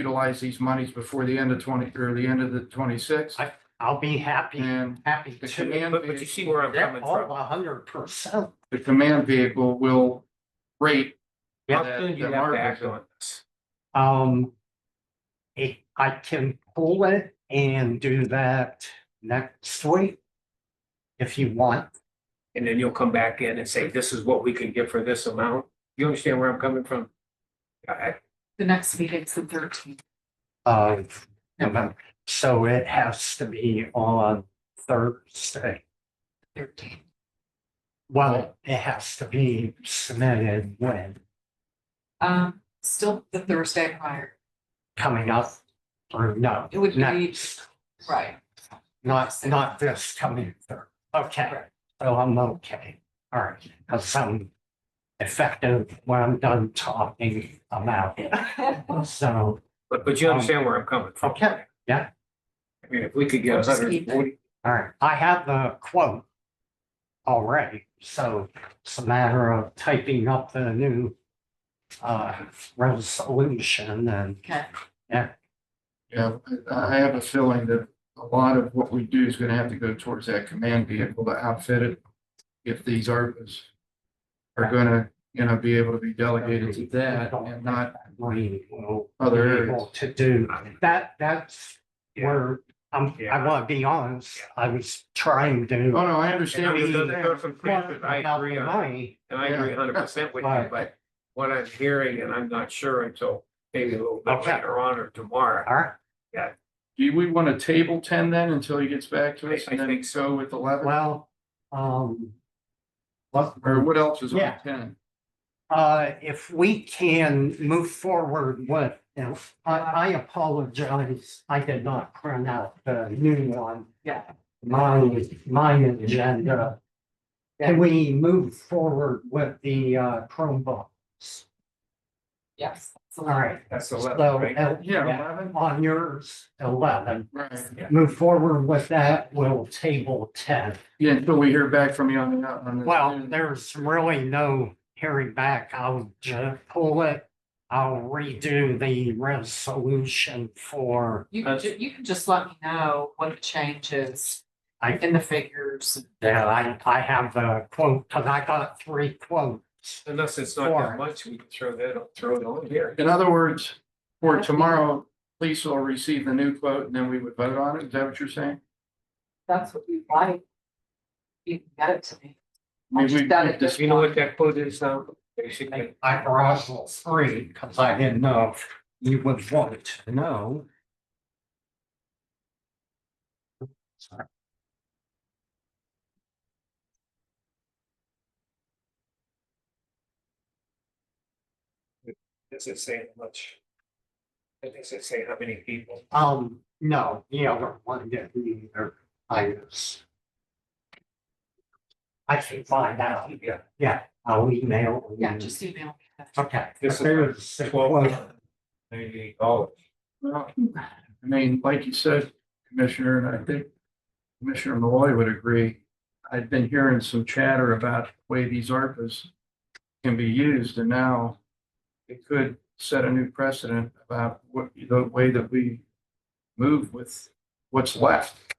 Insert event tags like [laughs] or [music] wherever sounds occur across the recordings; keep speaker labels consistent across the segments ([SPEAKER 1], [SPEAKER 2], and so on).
[SPEAKER 1] utilize these monies before the end of twenty, or the end of the twenty-six.
[SPEAKER 2] I- I'll be happy,
[SPEAKER 1] And
[SPEAKER 2] happy
[SPEAKER 1] the
[SPEAKER 2] to.
[SPEAKER 1] command.
[SPEAKER 3] Mm. But, but you
[SPEAKER 1] vehicle-
[SPEAKER 3] see where I'm
[SPEAKER 2] Yeah,
[SPEAKER 3] coming
[SPEAKER 2] oh,
[SPEAKER 3] from.
[SPEAKER 2] a hundred percent.
[SPEAKER 1] The command vehicle will rate.
[SPEAKER 3] How
[SPEAKER 1] that-
[SPEAKER 3] soon do you
[SPEAKER 1] that
[SPEAKER 3] have to
[SPEAKER 1] market
[SPEAKER 3] act
[SPEAKER 1] is-
[SPEAKER 3] on this?
[SPEAKER 2] Um. If I can pull it and do that next week. If you want,
[SPEAKER 3] And then you'll come back in and say, this is what we can get for this amount. You understand where I'm coming from? I- I-
[SPEAKER 4] The next meeting's the thirteenth.
[SPEAKER 2] uh, November. so it has to be on Thursday.
[SPEAKER 4] Thirteenth.
[SPEAKER 2] Well, it has to be submitted when
[SPEAKER 4] Um, still the Thursday prior.
[SPEAKER 2] coming up or no.
[SPEAKER 4] It would be-
[SPEAKER 2] next.
[SPEAKER 4] Right.
[SPEAKER 2] Not, not this coming third. Okay, so I'm okay. All right, because I'm effective when I'm done talking about it. So,
[SPEAKER 3] But, but you understand where I'm coming from?
[SPEAKER 2] okay, yeah.
[SPEAKER 3] I mean, if we could get a hundred and forty,
[SPEAKER 2] all right. I have the quote already, so it's a matter of typing up the new uh, resolution and
[SPEAKER 4] Okay,
[SPEAKER 1] Yeah, I I have a feeling that a lot of what we do is gonna have to go towards that command vehicle to outfit it. If these ARPA's are gonna, you know, be able to be delegated to that and not
[SPEAKER 2] we will be
[SPEAKER 1] Other areas.
[SPEAKER 2] able to do. That, that's where I'm, I
[SPEAKER 3] Yeah.
[SPEAKER 2] want to be honest, I was trying to.
[SPEAKER 1] Oh, no, I understand. what
[SPEAKER 3] And
[SPEAKER 1] you're
[SPEAKER 3] I'm gonna go
[SPEAKER 1] saying.
[SPEAKER 3] from Frankfurt, I
[SPEAKER 2] About
[SPEAKER 3] agree
[SPEAKER 2] the
[SPEAKER 3] on-
[SPEAKER 2] money.
[SPEAKER 3] and I agree
[SPEAKER 1] Yeah.
[SPEAKER 3] hundred percent with you,
[SPEAKER 2] Right.
[SPEAKER 3] but what I'm hearing, and I'm not sure until maybe a little bit
[SPEAKER 2] Okay.
[SPEAKER 3] later on or tomorrow.
[SPEAKER 2] All right,
[SPEAKER 1] Do we want to table ten then until he gets back to us
[SPEAKER 3] I- I
[SPEAKER 1] and then
[SPEAKER 3] think
[SPEAKER 1] go with eleven?
[SPEAKER 2] well, um. What,
[SPEAKER 1] Or what else is on
[SPEAKER 2] Yeah.
[SPEAKER 1] ten?
[SPEAKER 2] uh, if we can move forward with, if, I, I apologize, I did not print out the new one.
[SPEAKER 4] yeah.
[SPEAKER 2] My, my agenda. Can we move forward with the uh Chromebooks?
[SPEAKER 4] Yes. that's a
[SPEAKER 2] All
[SPEAKER 4] lot.
[SPEAKER 2] right.
[SPEAKER 3] That's
[SPEAKER 2] So,
[SPEAKER 3] eleven, right?
[SPEAKER 2] uh,
[SPEAKER 1] Yeah,
[SPEAKER 2] yeah,
[SPEAKER 1] eleven,
[SPEAKER 2] on yours, eleven,
[SPEAKER 1] right.
[SPEAKER 2] move forward with that, we'll table ten.
[SPEAKER 1] Yeah, until we hear back from you on the, on the.
[SPEAKER 2] Well, there's really no hearing back, I'll just pull it. I'll redo the resolution for,
[SPEAKER 4] You can, ju- you can just let me know what the change is
[SPEAKER 2] I,
[SPEAKER 4] in the figures.
[SPEAKER 2] yeah, I, I have the quote, cause I got three quotes.
[SPEAKER 3] Unless it's not
[SPEAKER 2] Four.
[SPEAKER 3] that much, we can throw that, throw it on here.
[SPEAKER 1] In other words, for tomorrow, police will receive the new quote and then we would vote on it. Is that what you're saying?
[SPEAKER 4] That's what you like. You can get it to me.
[SPEAKER 1] I mean,
[SPEAKER 4] Just
[SPEAKER 1] we-
[SPEAKER 4] got it.
[SPEAKER 1] this-
[SPEAKER 3] You know what that quote is now, basically?
[SPEAKER 2] I brought all three, cause I didn't know if you would want to know.
[SPEAKER 3] Does it say much? It doesn't say how many people.
[SPEAKER 2] Um, no, the other one didn't either, I guess. I can find out,
[SPEAKER 3] Yeah,
[SPEAKER 2] yeah, I'll email. you.
[SPEAKER 4] Yeah, just email me. that.
[SPEAKER 2] Okay.
[SPEAKER 3] This is-
[SPEAKER 2] There's the
[SPEAKER 3] Well-
[SPEAKER 2] quote.
[SPEAKER 3] maybe, oh,
[SPEAKER 1] well, I mean, like you said, Commissioner, and I think Commissioner Malloy would agree. I've been hearing some chatter about the way these ARPA's can be used and now it could set a new precedent about what, the way that we move with what's left.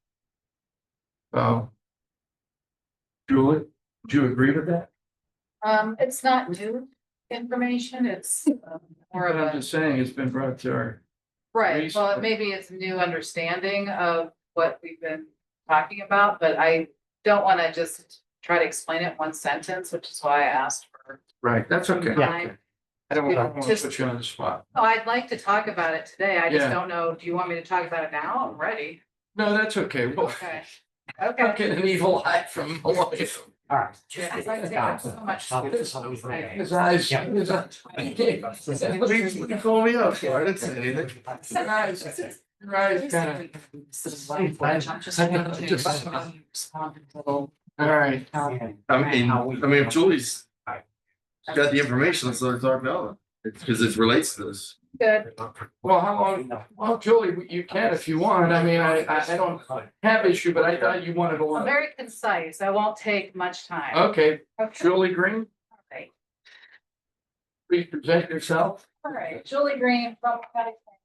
[SPEAKER 1] So Julie, do you agree with that?
[SPEAKER 4] Um, it's not new information, it's um, more
[SPEAKER 1] But
[SPEAKER 4] of
[SPEAKER 1] I'm
[SPEAKER 4] a,
[SPEAKER 1] just saying, it's been brought to our,
[SPEAKER 4] right, well,
[SPEAKER 1] Recently.
[SPEAKER 4] maybe it's a new understanding of what we've been talking about, but I don't wanna just try to explain it in one sentence, which is why I asked for.
[SPEAKER 1] right, that's okay.
[SPEAKER 4] Yeah.
[SPEAKER 1] I don't want to
[SPEAKER 4] Just-
[SPEAKER 1] put you on the spot.
[SPEAKER 4] Oh, I'd like to talk about it today, I just
[SPEAKER 1] Yeah.
[SPEAKER 4] don't know, do you want me to talk about it now? I'm ready.
[SPEAKER 1] No, that's okay. Well,
[SPEAKER 4] Okay.
[SPEAKER 1] [laughs] I'm
[SPEAKER 4] Okay.
[SPEAKER 1] getting an evil eye from Malloy.
[SPEAKER 2] All right.
[SPEAKER 4] Yeah, I think there's so much-
[SPEAKER 2] I'll do something for you.
[SPEAKER 1] His eyes.
[SPEAKER 2] Yeah.
[SPEAKER 1] his eyes- Please, you can call me [laughs] up for it. It's anything. Your eyes- your eyes kinda-
[SPEAKER 4] All
[SPEAKER 1] All right.
[SPEAKER 5] I mean,
[SPEAKER 2] How
[SPEAKER 5] I
[SPEAKER 2] we-
[SPEAKER 5] mean, if Julie's got the information, so it's our valid, it's because it relates to this.
[SPEAKER 4] Good,
[SPEAKER 1] Well, how long, well, Julie, you can if you want. I mean, I, I, I don't have issue, but I thought you wanted to.
[SPEAKER 4] Well,
[SPEAKER 1] learn.
[SPEAKER 4] very concise, I won't take much time.
[SPEAKER 1] Okay,
[SPEAKER 4] Okay.
[SPEAKER 1] Julie Green,
[SPEAKER 4] All right.
[SPEAKER 1] please present yourself.
[SPEAKER 4] All right, Julie Green, from County Planning